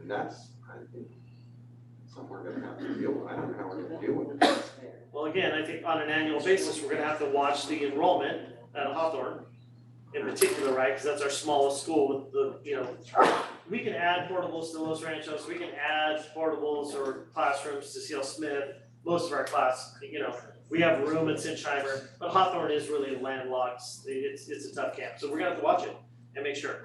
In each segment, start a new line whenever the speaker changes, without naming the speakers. And that's, I think, something we're gonna have to deal with, I don't know how we're gonna deal with it.
Well, again, I think on an annual basis, we're gonna have to watch the enrollment uh, at Hawthorne in particular, right? Cause that's our smallest school with the, you know, we can add portables to Los Ranchos, we can add portables or classrooms to CL Smith. Most of our class, you know, we have room at Sinsheimer, but Hawthorne is really landlocked, it's, it's a tough camp, so we're gonna have to watch it and make sure.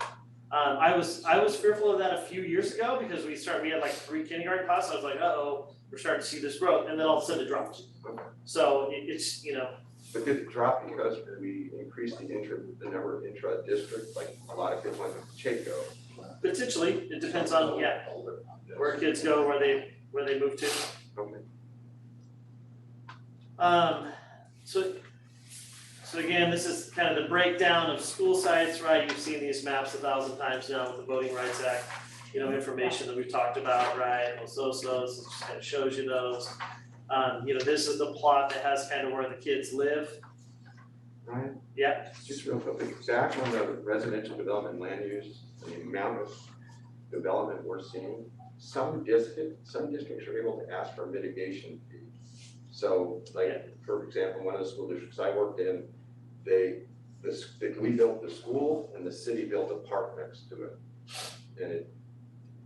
Um, I was, I was fearful of that a few years ago because we started, we had like three kindergarten classes, I was like, uh-oh, we're starting to see this growth, and then all of a sudden it dropped. So it, it's, you know,
But did it drop because we increased the intra, the number of intra-district, like a lot of kids went to Chaco?
potentially, it depends on, yeah, where kids go, where they, where they move to.
Okay.
Um, so, so again, this is kind of the breakdown of school sites, right? You've seen these maps a thousand times now with the Voting Rights Act. You know, information that we've talked about, right? Los Osos, it just kind of shows you those. Um, you know, this is the plot that has kind of where the kids live.
Ryan?
Yeah.
Just real quick, back on the residential development land use, the amount of development we're seeing, some district, some districts are able to ask for mitigation fees. So like, for example, one of the school districts I worked in, they, this, we built the school and the city built a park next to it. And it,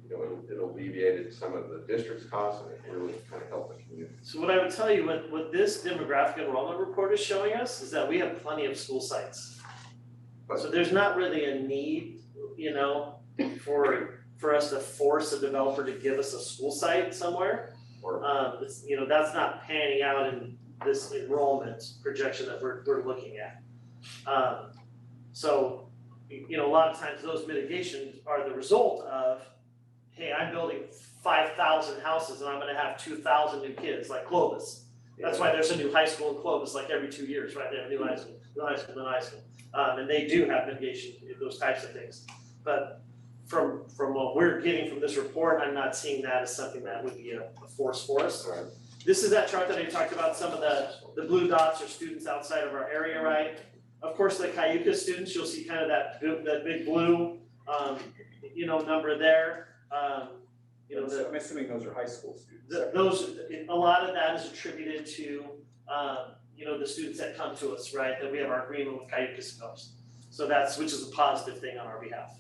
you know, it- it alleviated some of the district's costs and it really kind of helped the community.
So what I would tell you, what, what this demographic enrollment report is showing us is that we have plenty of school sites. So there's not really a need, you know, for, for us to force a developer to give us a school site somewhere.
Or-
Um, it's, you know, that's not panning out in this enrollment projection that we're, we're looking at. Um, so, you you know, a lot of times those mitigations are the result of, hey, I'm building five thousand houses and I'm gonna have two thousand new kids, like Clovis. That's why there's a new high school in Clovis, like every two years, right, they have a new high school, new high school, new high school. Um, and they do have mitigation, those types of things. But from, from what we're getting from this report, I'm not seeing that as something that would be a a force for us.
Right.
This is that chart that I talked about, some of the, the blue dots are students outside of our area, right? Of course, the Cayuga students, you'll see kind of that, bu- that big blue, um, you know, number there. Um, you know, the,
I'm assuming those are high school students.
th- those, a lot of that is attributed to, um, you know, the students that come to us, right? That we have our agreement with Cayuga Scopes. So that's, which is a positive thing on our behalf.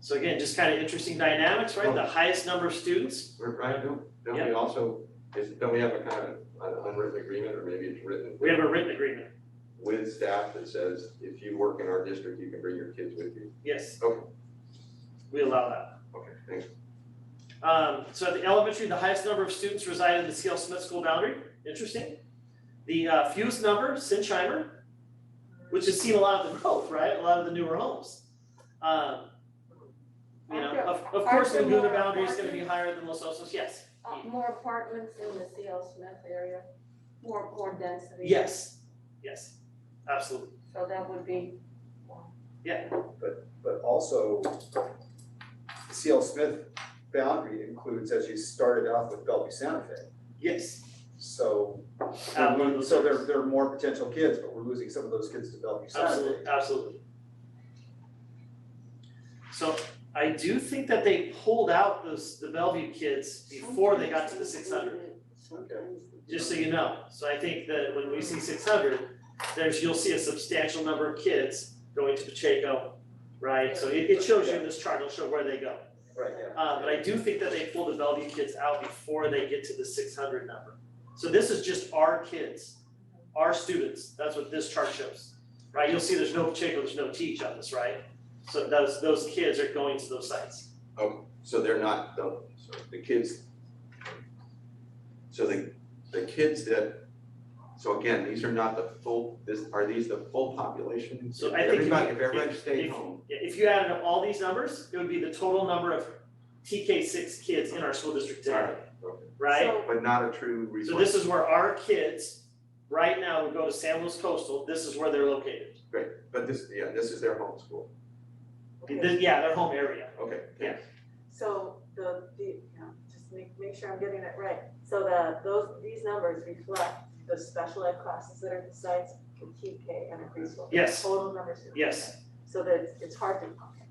So again, just kind of interesting dynamics, right? The highest number of students,
Right, Right, don't, don't we also, is, don't we have a kind of an unwritten agreement, or maybe it's written
we have a written agreement,
with staff that says, if you work in our district, you can bring your kids with you?
yes.
Okay.
We allow that.
Okay, thanks.
Um, so at the elementary, the highest number of students reside in the CL Smith school boundary. Interesting. The uh, fewest number, Sinsheimer, which has seen a lot of the growth, right? A lot of the newer homes. Um, you know, of, of course,
Aren't there
Laguna
more
Boundary is going to be higher than Los Osos. Yes.
Uh, more apartments in the CL Smith area, more, more density.
Yes. Yes. Absolutely.
So that would be,
But also, the CL Smith boundary includes, as you started off with Bellevue Santa Fe.
Yes.
So,
Out
we're
of
lo-
those
so there,
areas.
there are more potential kids, but we're losing some of those kids to Bellevue Santa Fe.
Absolutely. Absolutely. So I do think that they pulled out those the Bellevue kids before they got to the 600. just so you know. So I think that when we see six hundred, there's, you'll see a substantial number of kids going to Pacheco, right? So it, it shows you in this chart, it'll show where they go.
Right, yeah.
Uh, but I do think that they pull the Bellevue kids out before they get to the six hundred number. So this is just our kids, our students, that's what this chart shows, right? You'll see there's no Pacheco, there's no teach on this, right? So those, those kids are going to those sites.
So they're not, the, so the kids, so the, the kids that, so again, these are not the full, this, are these the full population?
So I think if
Everybody,
you-
if everybody
if-
stayed
if-
home,
Yeah, if you added up all these numbers, it would be the total number of TK six kids in our school district today,
okay,
right?
but not a true
So
resort,
this is where our kids, right now, would go to San Luis Coastal, this is where they're located.
but this, yeah, this is their home school.
This- Yeah, their home area.
okay, thanks.
So the, the, yeah, just make, make sure I'm getting that right. So the, those, these numbers reflect the special ed classes that are at the sites for TK and a preschool.
Yes.
Total numbers.
Yes,
So that it's hard to